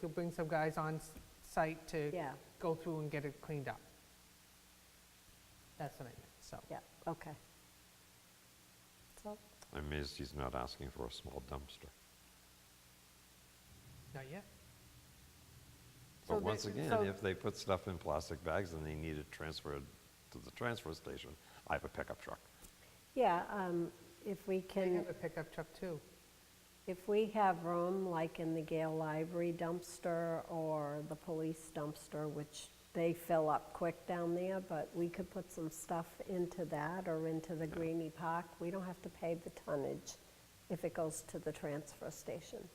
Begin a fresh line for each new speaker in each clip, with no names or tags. you'll bring some guys on s- site to
Yeah.
go through and get it cleaned up. That's what I meant, so.
yeah, okay. So,
I'm amazed he's not asking for a small dumpster.
Not yet. So
But
the-
once again,
so-
if they put stuff in plastic bags and they need it transferred to the transfer station, I have a pickup truck.
yeah, um, if we
They
can,
have a pickup truck too.
if we have room, like in the Gale Library dumpster or the police dumpster, which they fill up quick down there, but we could put some stuff into that or into the Greenie Park. We don't have to pay the tonnage if it goes to the transfer station.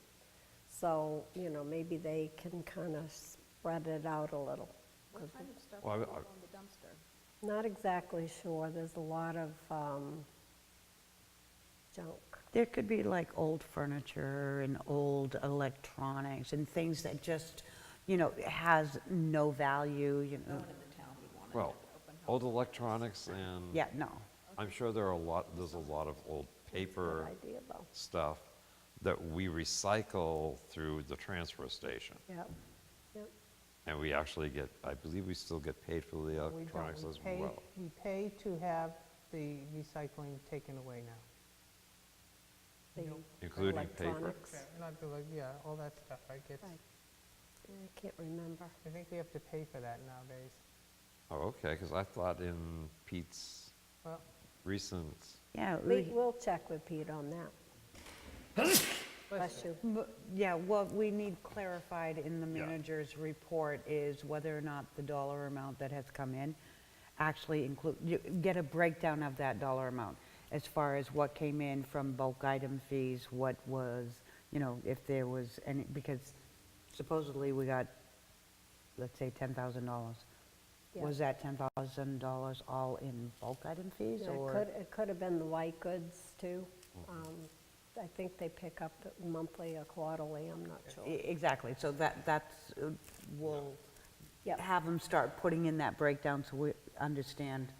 So, you know, maybe they can kind of spread it out a little. 'cause
What kind of stuff
Well, I-
goes
I-
on the dumpster?
Not exactly sure, there's a lot of um, junk.
There could be like old furniture and old electronics and things that just, you know, has no value, you know.
Well, old electronics and.
Yeah, no.
I'm sure there are a lot, there's a lot of old paper
idea, though.
stuff that we recycle through the transfer station.
Yep, yep.
And we actually get, I believe we still get paid for the
We don't-
electronics
we
as
pay-
well.
We pay to have the recycling taken away now.
the
Including paper.
electronics.
Yeah, Not the, like, yeah, all that stuff, right? gets,
Right. I can't remember.
I think we have to pay for that nowadays.
Oh, okay, because I thought in Pete's
Well,
recent,
Yeah,
We,
we-
we'll check with Pete on that. Bless you.
m- yeah, what we need clarified in the
Yeah.
manager's report is whether or not the dollar amount that has come in actually include, you get a breakdown of that dollar amount as far as what came in from bulk item fees, what was, you know, if there was any, because supposedly we got let's say $10,000.
Yeah.
Was that $10,000 all in bulk item fees
Yeah, It
or?
could, it could have been the white goods, too. Um, I think they pick up monthly or quarterly, I'm not
E-
sure.
Exactly, so that, that's, uh, we'll
Yep.
have them start putting in that breakdown so we understand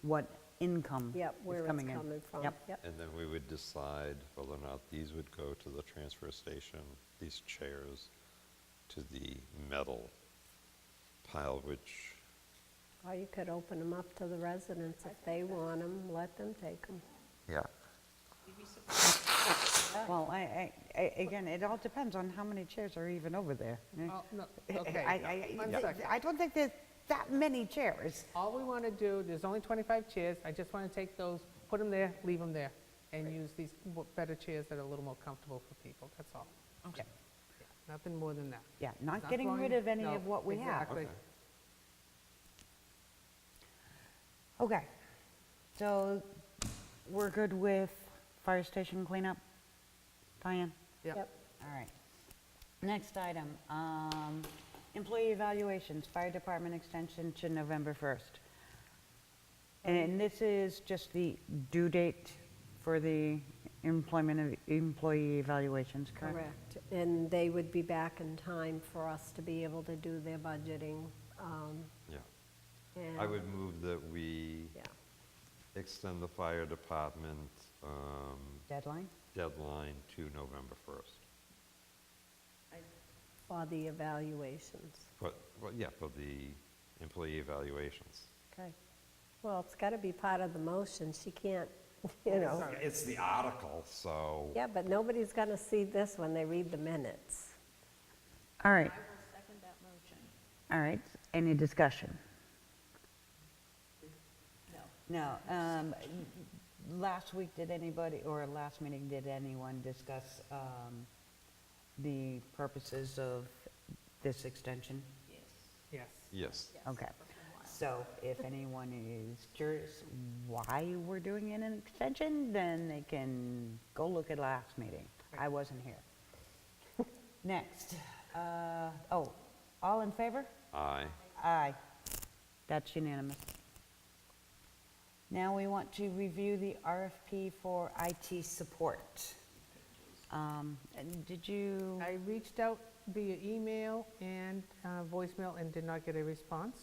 what income is
Yep, where it's
coming in.
coming from.
Yep.
Yep,
and then we would decide whether or not these would go to the transfer station, these chairs, to the metal pile, which,
or you could open them up to the residents if they want them, let them take them.
yeah,
Well, I, I, I- again, it all depends on how many chairs are even over there.
oh, no,
I-
okay.
I-
One
I
second.
I don't think there's that many chairs.
All we want to do, there's only 25 chairs, I just want to take those, put them there, leave them there, and use these w- better chairs that are a little more comfortable for people, that's all.
Okay.
Nothing more than that.
Yeah, not
Not
getting rid
going-
of any
no,
of what we have.
Exactly.
Okay.
Okay, so we're good with fire station cleanup? Diane?
Yep.
Yep,
All right. Next item, um, employee evaluations, fire department extension to November 1st. And this is just the due date for the employment of employee evaluations, correct?
correct. And they would be back in time for us to be able to do their budgeting. um,
yeah. I
and-
would move that we
Yeah,
extend the fire department um,
Deadline?
deadline to November 1st.
for the evaluations.
But, well, yeah, for the employee evaluations.
Okay.
Well, it's got to be part of the motion, she can't, you know.
It's the article, so.
Yeah, but nobody's going to see this when they read the minutes.
All
I
right,
will second that motion.
all right. Any discussion?
No.
No, um, last week, did anybody, or last meeting, did anyone discuss, um, the purposes of this extension?
Yes.
Yes.
Okay. So if anyone is curious why we're doing an extension, then they can go look at last meeting. I wasn't here. Next, uh, oh, all in favor?
Aye.
Aye. That's unanimous. Now we want to review the RFP for IT support. Um, and Did you,
I reached out via email and uh, voicemail and did not get a response.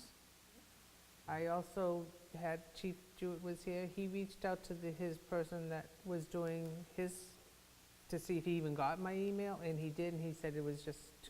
I also had Chief Jewett was here, he reached out to the, his person that was doing his, to see if he even got my email, and he did, and he said it was just too